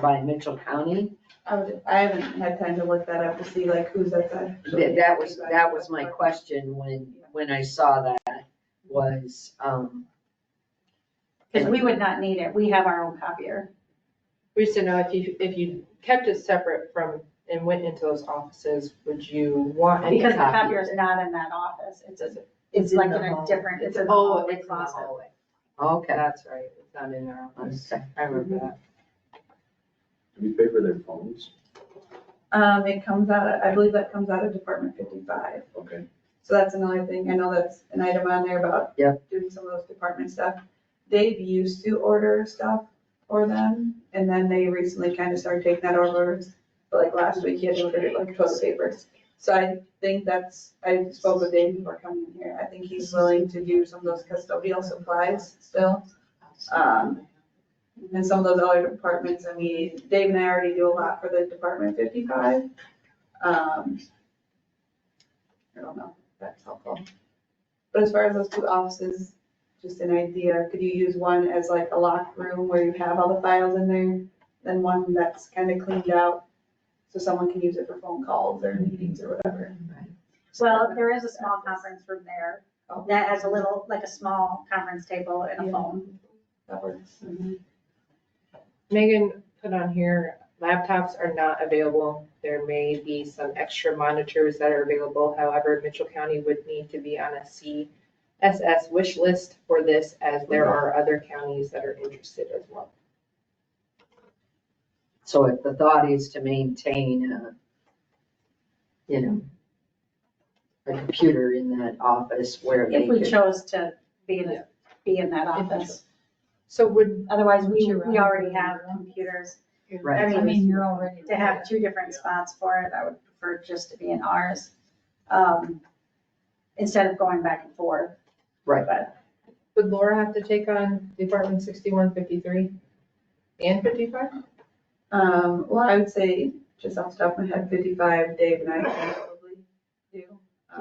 by Mitchell County. I would- I haven't had time to look that up to see like who's at the. That, that was, that was my question when, when I saw that, was, um, Because we would not need it, we have our own copier. We used to know if you, if you kept it separate from, and went into those offices, would you want any? Because the copier. copier is not in that office, it's, Does it- it's in like the in a hall. different, it's in the Oh, it's hallway in the closet. hallway. okay. That's right, it's not in our office. Okay. I remember Mm-hmm. that. Do we pay for their phones? Um, it comes out, of- I believe that comes out of Department fifty-five. Okay. So that's another thing. I know that's an item on there about Yeah. doing some of those department stuff. Dave used to order stuff for them and then they recently kind of started taking that over. But like last week, he had ordered like toilet papers. So I think that's, I spoke with Dave before coming here. I think he's willing to do some of those custodial supplies still. Um, and some of those other departments, I mean, Dave and I already do a lot for the Department fifty-five. Um, I don't know, if that's helpful. But as far as those two offices, just an idea, could you use one as like a locked room where you have all the files in there? Then one that's kind of cleaned out, so someone can use it for phone calls or meetings or whatever. Well, there is a small conference room there, Oh. that has a little, like a small conference table and a Yeah. phone. That works. Megan put on here, laptops are not available. There may be some extra monitors that are available. However, Mitchell County would need to be on a CSS wish list for this as there Mm-hmm. are other counties that are interested as well. So if the thought is to maintain a, you know, a computer in that office where they If we could, chose to be in, a- be in that office. So would, Otherwise, Would we, you we rather already be have in your own? computers. Right. I I mean, mean, you're already. to have two different spots for it, I would prefer just to be in ours. um, Instead of going back and forth. Right. But would Laura have to take on Department sixty-one, fifty-three and fifty-five? Um, well, I would say, just off the top of my head, fifty-five, Dave and I can probably do. can you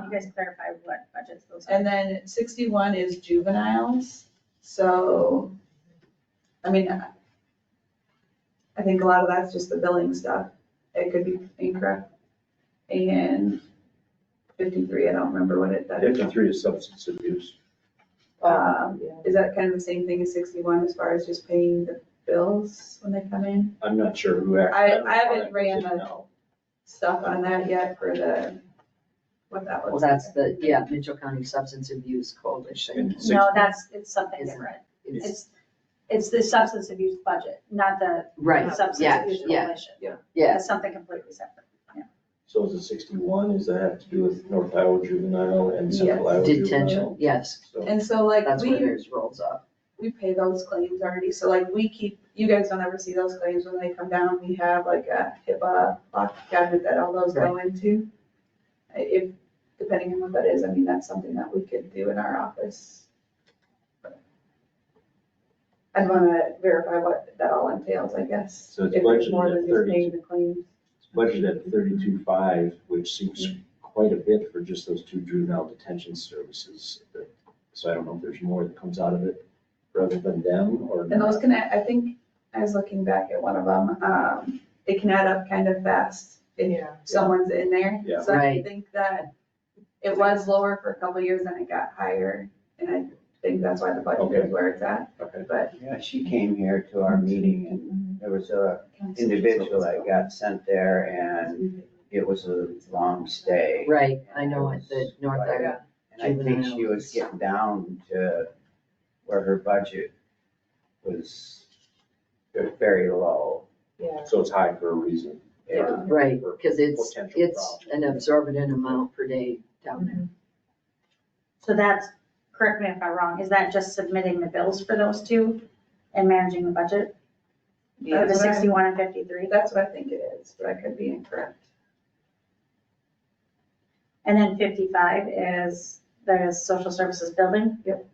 Um, guys clarify what budgets those are? And then sixty-one is juveniles, so, I mean, I- I think a lot of that's just the billing stuff, it could be incorrect. And fifty-three, I don't remember what it, that is. Fifty-three is substance abuse. Um, Yeah. is that kind of the same thing as sixty-one as far as just paying the bills when they come in? I'm not sure who. act- I- don't know I haven't how that ran goes in the- now. Stuff on that yet for the, what that well, was. that's the, yeah, Mitchell County Substance Abuse Coalition. And No, that's, it's something Isn't it? different. It's- It's, it's the substance abuse budget, not the Right, substance yeah, abuse yeah, coalition. yes, It's something completely separate. yeah. So is it sixty-one? Does that have to do with North Iowa juvenile and Central Yes. Iowa detention, juvenile? yes, So And so like, that's we. where theirs rolls up. we pay those claims already, so like we keep, you guys don't ever see those claims when they come down, we have like a HIPAA lock cabinet that all those go into. I- If, depending on what that is, I mean, that's something that we could do in our office. I'd wanna verify what that all entails, I guess, So if it's there's budgeted more than at just 32. paying the claims. it's budgeted at thirty-two-five, which seems quite a bit for just those two juvenile detention services. So I don't know if there's more that comes out of it rather than them or. And those not. can, add- I think, I was looking back at one of them, um, it can add up kind of fast if Yeah. someone's in there. Yeah. So I Right. think that it was lower for a couple of years and it got higher, and I think that's why the budget Okay. is where it's at. Okay. But Yeah, she came here to our meeting and there was a individual that got sent there and it was a long stay. Right, I know at the North Iowa, And I think she was getting down to where her budget was very low. Yeah. So it's high for a reason. Yeah. right, because it's, Potential it's an absorbent amount per day down there. So that's, correct me if I'm wrong, is that just submitting the bills for those two and managing the budget? Or the that's what I- sixty-one and fifty-three? that's what I think it is, but I could be incorrect. And then fifty-five is the social services building? Yep.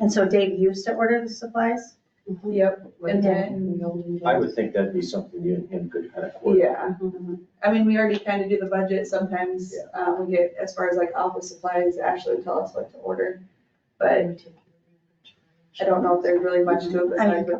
And so Dave used to order the supplies? Mm-hmm. Yep, and then, I would think that'd be something you and him could kind of coordinate. yeah. Mm-hmm. I mean, we already kind of do the budget sometimes, Yeah. um, we get, as far as like office supplies, Ashley will tell us what to order. But I don't know if there's really much to it I mean, besides what